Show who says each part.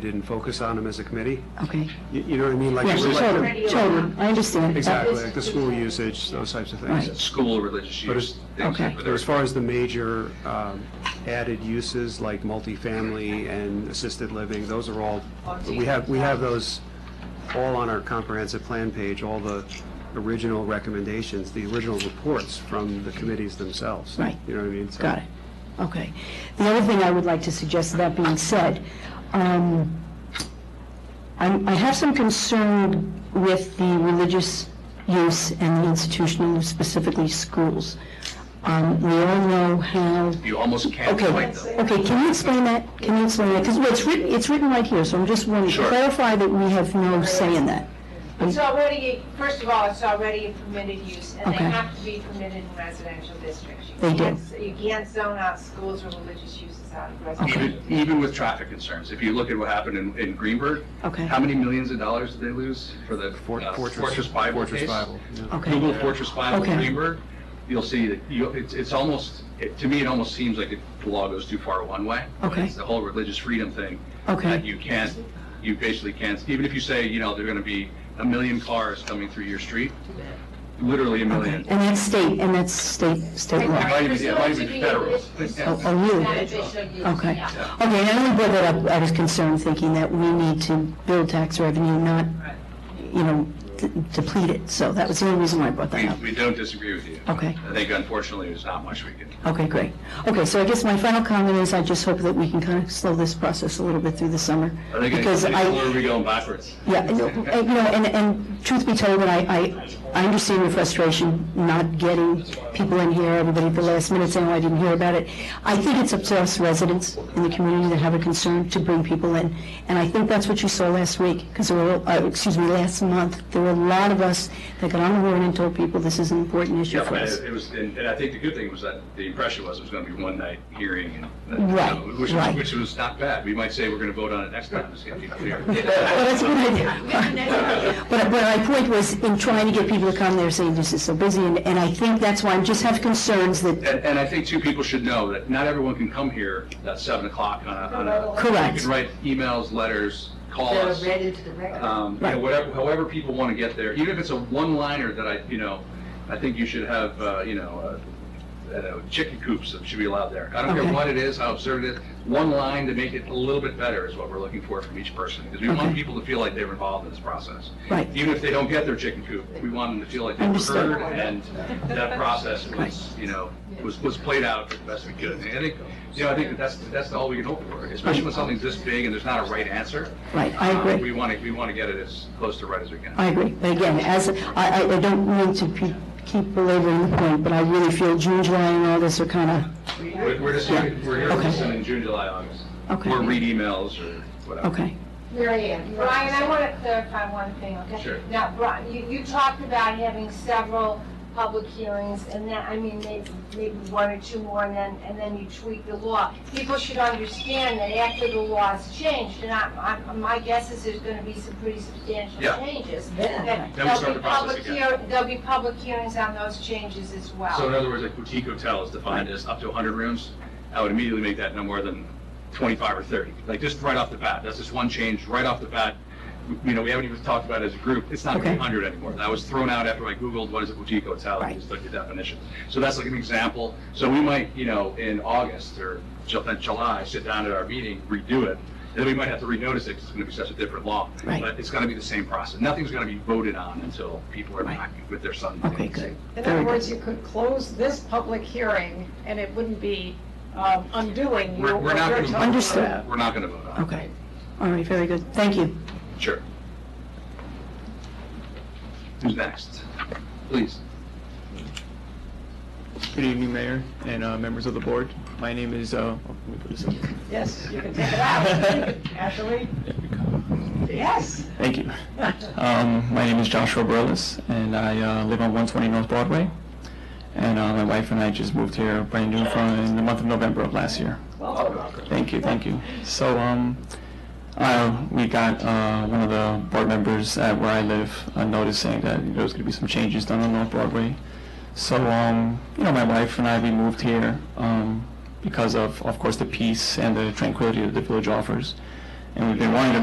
Speaker 1: didn't focus on them as a committee.
Speaker 2: Okay.
Speaker 1: You- You know what I mean? Like
Speaker 2: Yes,
Speaker 1: like-
Speaker 2: children, children, I understand.
Speaker 1: Exactly, like the school usage, those types of
Speaker 2: Right.
Speaker 1: things.
Speaker 3: school religious
Speaker 1: But
Speaker 3: use.
Speaker 1: it's-
Speaker 3: things
Speaker 2: okay.
Speaker 3: like
Speaker 1: But as
Speaker 3: that.
Speaker 1: far as the major um, added uses like multifamily and assisted living, those are all, we have, we have those all on our comprehensive plan page, all the original recommendations, the original reports from the committees themselves.
Speaker 2: Right.
Speaker 1: You know what I mean? So-
Speaker 2: Got it. Okay. The other thing I would like to suggest, that being said, um, I'm- I have some concern with the religious use and the institutional, use, specifically schools. Um, We all know how
Speaker 3: You almost can't
Speaker 2: Okay,
Speaker 3: fight them.
Speaker 2: okay, can you explain that? Can you explain that? Because it's written, it's written right here, so I'm just wanting to
Speaker 3: Sure.
Speaker 2: clarify that we have no say in that.
Speaker 4: It's already, first of all, it's already a permitted use, and they
Speaker 2: Okay.
Speaker 4: have to be permitted in residential districts. You
Speaker 2: They do.
Speaker 4: can't- You can't zone out schools or religious uses out of residential.
Speaker 3: Even, even with traffic concerns, if you look at what happened in, in Greenberg,
Speaker 2: Okay.
Speaker 3: how many millions of dollars did they lose for the
Speaker 1: For-
Speaker 3: uh, Fortress Bible
Speaker 1: Fortress
Speaker 3: case?
Speaker 1: Bible, yeah.
Speaker 2: Okay,
Speaker 3: Google Fortress Bible
Speaker 2: Okay.
Speaker 3: Greenberg, you'll see that, you, it's, it's almost, it- to me, it almost seems like it- the law goes too far one way. but
Speaker 2: Okay.
Speaker 3: It's the whole religious freedom thing.
Speaker 2: Okay.
Speaker 3: That you can't, you basically can't, even if you say, you know, there are going to be a million cars coming through your street, literally a
Speaker 2: okay.
Speaker 3: million.
Speaker 2: And that's state, and that's state, state
Speaker 3: It
Speaker 2: law.
Speaker 3: might even, it might even be federal.
Speaker 2: Oh, oh, really? Okay. Okay, and I only brought that up, I was concerned, thinking that we need to build tax revenue, not, you know, d- deplete it. So that was the only reason why I brought that
Speaker 3: We,
Speaker 2: up.
Speaker 3: we don't disagree with you.
Speaker 2: Okay.
Speaker 3: I think unfortunately, there's not much we can.
Speaker 2: Okay, great. Okay, so I guess my final comment is I just hope that we can kind of slow this process a little bit through the summer.
Speaker 3: Are they
Speaker 2: because I-
Speaker 3: going, or are we going backwards?
Speaker 2: Yeah, and, uh, you know, and, and truth be told, and I, I, I understand your frustration not getting people in here, everybody at the last minute saying, oh, I didn't hear about it. I think it's up to us residents in the community that have a concern to bring people in. And I think that's what you saw last week, because there were, uh, excuse me, last month, there were a lot of us that got on the horn and told people this is an important issue
Speaker 3: Yeah,
Speaker 2: for
Speaker 3: but
Speaker 2: us.
Speaker 3: it it was, and and I think the good thing was that the impression was it was going to be one night hearing and.
Speaker 2: Right,
Speaker 3: Which was,
Speaker 2: right.
Speaker 3: which was not bad. We might say we're going to vote on it next time, just to be clear.
Speaker 2: Well, that's a good idea. But, but my point was, in trying to get people to come, they're saying this is so busy, and, and I think that's why I just have concerns that,
Speaker 3: And, and I think two people should know that not everyone can come here at seven o'clock on a, on a.
Speaker 2: Correct.
Speaker 3: You can write emails, letters, call
Speaker 5: They're
Speaker 3: us.
Speaker 5: read into the record.
Speaker 3: um, you know, whatever, however people want to get there, even if it's a one-liner that I, you know, I think you should have, uh, you know, uh, uh, chicken coops that should be allowed there. I don't
Speaker 2: Okay.
Speaker 3: care what it is, how absurd it is, one line to make it a little bit better is what we're looking for from each person, because we
Speaker 2: Okay.
Speaker 3: want people to feel like they're involved in this process.
Speaker 2: Right.
Speaker 3: Even if they don't get their chicken coop, we want them to feel like they were
Speaker 2: Understood.
Speaker 3: heard, and that process was, you know, was, was played out the best we could. And I think, you know, I think that that's, that's all we can hope for, especially when something's this big and there's not a right answer.
Speaker 2: right, I
Speaker 3: Uh, We
Speaker 2: agree.
Speaker 3: want to, we want to get it as close to right as we can.
Speaker 2: I agree, but again, as, I, I I don't mean to pe- keep belaboring the point, but I really feel June, July, and August are kind of,
Speaker 3: We're we're just, here- we're here to
Speaker 2: Okay.
Speaker 3: listen in June, July, August.
Speaker 2: Okay.
Speaker 3: Or read emails or whatever.
Speaker 2: okay,
Speaker 5: Mary Ann. you're on
Speaker 4: Brian, I
Speaker 5: the
Speaker 4: want to clarify one thing, okay?
Speaker 3: Sure.
Speaker 4: Now, Brian, you, you talked about having several public hearings, and then, I mean, maybe, maybe one or two more, and then, and then you tweak the law. People should understand that after the law is changed, and I, I, my guess is there's gonna be some pretty substantial
Speaker 3: Yeah.
Speaker 4: changes.
Speaker 5: Yeah.
Speaker 4: That
Speaker 3: Then we start
Speaker 4: There'll
Speaker 3: the
Speaker 4: be
Speaker 3: process
Speaker 4: public
Speaker 3: again.
Speaker 4: hear, there'll be public hearings on those changes as well.
Speaker 3: So in other words, a boutique hotel is defined as up to 100 rooms. I would immediately make that no more than 25 or 30, like just right off the bat. That's just one change right off the bat. We- You know, we haven't even talked about it as a group. It's not
Speaker 2: Okay.
Speaker 3: 100 anymore. That was thrown out after I Googled what is a boutique hotel
Speaker 2: Right.
Speaker 3: and just looked at definitions. So that's like an example. So we might, you know, in August or Ju- in July, sit down at our meeting, redo it. Then we might have to renotice it because it's going to be such a different law.
Speaker 2: Right.
Speaker 3: But it's going to be the same process. Nothing's going to be voted on until people are
Speaker 2: Right.
Speaker 3: back with their son.
Speaker 2: okay, good.
Speaker 6: In
Speaker 2: Very
Speaker 6: other
Speaker 2: good.
Speaker 6: words, you could close this public hearing, and it wouldn't be um, undoing your...
Speaker 3: We're, we're not going to.
Speaker 2: Understood.
Speaker 3: We're not going to vote on it.
Speaker 2: Okay, all right, very good, thank you.
Speaker 3: Sure. Who's next? Please.
Speaker 7: Good evening, Mayor and uh, members of the board. My name is, uh, oh, let me put this up.
Speaker 6: Yes, you can take it out, actually.
Speaker 7: There we go.
Speaker 6: Yes.
Speaker 7: Thank you. Um, My name is Joshua Burles, and I uh, live on 120 North Broadway. And uh, my wife and I just moved here brand new from in the month of November of last year.
Speaker 6: Welcome.
Speaker 7: Thank you, thank you. So, um, I, we got, uh, one of the board members at where I live a notice saying that there was gonna be some changes done on North Broadway. So, um, you know, my wife and I, we moved here, um, because of, of course, the peace and the tranquility that the village offers. and we've been wanting to